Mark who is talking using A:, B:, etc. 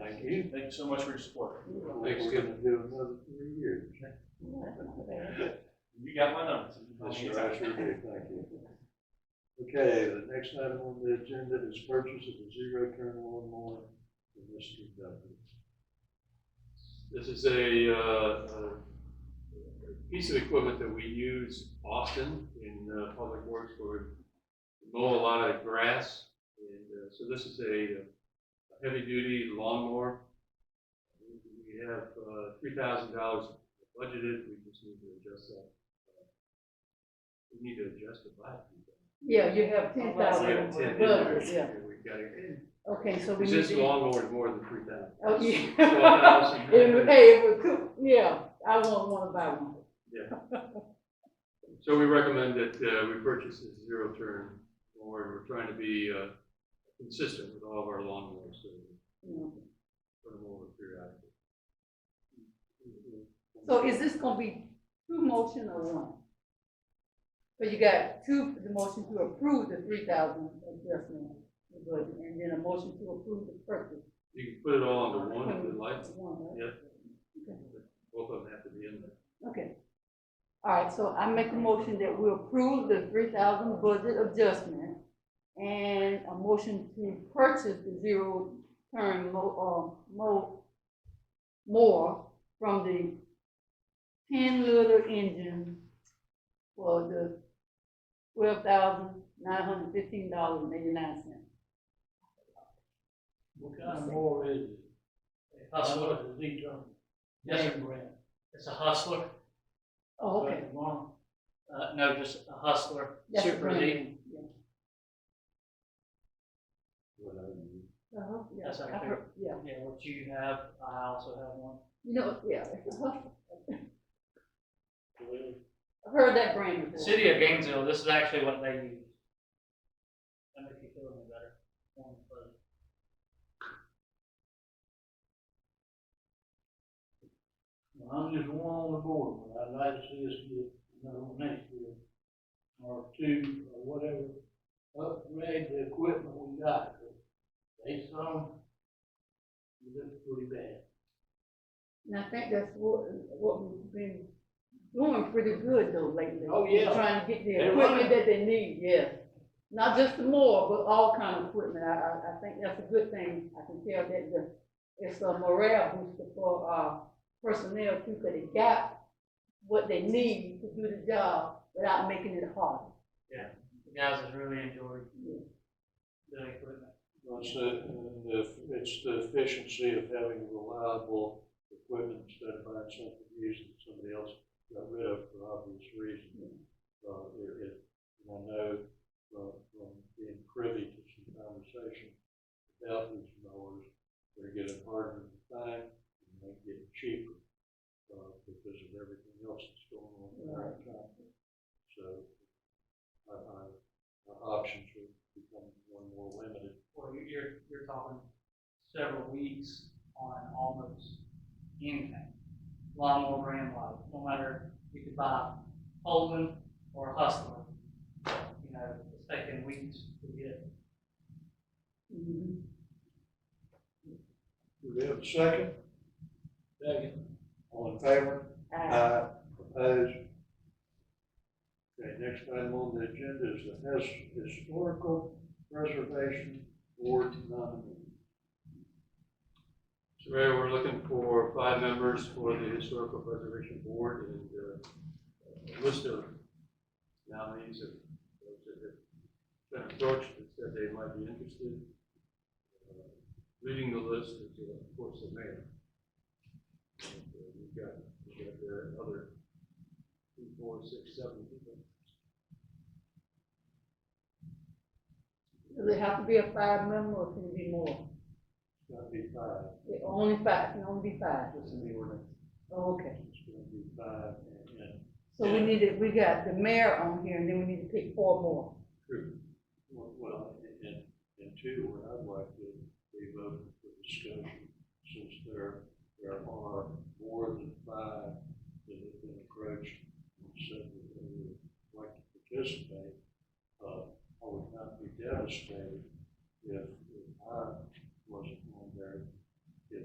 A: Thank you. Thank you so much for your support.
B: Think we're gonna do another three years.
A: You got my number.
B: That's right, sure do, thank you. Okay, the next item on the agenda is purchase of a zero-turn lawnmower for Mr. W.
C: This is a, uh, a piece of equipment that we use often in uh, public works where we mow a lot of grass. And uh, so this is a heavy-duty lawnmower. We have uh, $3,000 budgeted, we just need to adjust that. We need to adjust the budget.
D: Yeah, you have ten thousand
C: We have 10 in there,
D: dollars, yeah.
C: and We've got to,
D: Okay, so we need
C: this
D: to.
C: lawnmower is more than 3,000.
D: Oh, yeah.
C: It's 12,000.
D: It- Hey, it would cook, yeah, I won't wanna buy one.
C: So we recommend that uh, we purchase a zero turn mower, and we're trying to be uh, consistent with all of our lawnmowers, so
D: you know.
C: we put them over periodically.
D: So is this gonna be two motion or one? So you got two, the motion to approve the three thousand adjustment, the budget, and then a motion to approve the purchase.
C: You can put it all under one if you'd like,
D: One, right?
C: both of them have to be in there.
D: Okay. All right, so I make a motion that we approve the three thousand budget adjustment and a motion to purchase the zero turn mo, uh, mo, more from the ten liter engine for the twelve thousand nine hundred fifteen dollars and eighty-nine cents.
E: What kind of mower is it?
A: Hustler.
E: Hustler, the lead drum.
A: Yes, sir.
E: Name brand. It's a Hustler.
D: Oh, okay.
E: Brand Mark. Uh, no, just a Hustler,
D: That's the
E: Uh, Super
D: brand
E: League.
D: name, yeah.
B: What I need.
D: Uh-huh, yeah,
E: That's our
D: I heard- Yeah,
E: Yeah, what you have, I also have one.
D: you know, yeah, uh-huh. I heard that brand before.
E: City of Gainesville, this is actually what they use. That makes you feel any better. Um, but
B: Well, I'm just one on the board, but I'd like to see us get, you know, next year, or two, or whatever, upgrade the equipment we got, 'cause they some, it looks pretty bad.
D: And I think that's what, what we've been doing pretty good though lately.
B: Oh, yeah.
D: Trying to get the
B: They're
D: equipment
B: running.
D: that they need, yes. Not just the more, but all kind of equipment. I, I, I think that's a good thing. I can tell that the, it's a morale booster for, uh, personnel too, because they got what they need to do the job without making it hard.
E: The guys have really enjoyed
D: Yeah.
E: the equipment.
B: It's the, it's the efficiency of having reliable equipment instead of buying something used that somebody else got rid of for obvious reasons. Uh, it, it, and I know, uh, from being privy to some conversation about these mowers, they're getting harder to find, and they're getting cheaper, uh, because of everything else that's going on in our economy. So, I, I, our options are becoming more and more limited.
E: Well, you- you're, you're talking several weeks on almost anything. Lawnmower brand wise, no matter you could buy Holden or Hustler. You know, it's taking weeks to get.
D: Mhm.
B: Do we have a second? Second. All in favor?
D: I-
B: Opposed? Okay, next item on the agenda is the His- Historical Preservation Board nominee.
C: So Mayor, we're looking for five members for the Historical Preservation Board and uh, a list of nominees of those that have been approached that said they might be interested. Uh, Reading the list is, uh, of course, the mayor. And, uh, We've got, we've got uh, other two, four, six, seven people.
D: Does it have to be a five member or can it be more?
B: It's gonna be five,
D: It Only five, it can only be five.
B: it's in the ordinance,
D: Oh, Okay.
B: it's gonna be five, and, and
D: So we needed, we got the mayor on here, and then we need to pick four more.
B: well, and, and two, what I'd like to leave open for discussion, since there uh,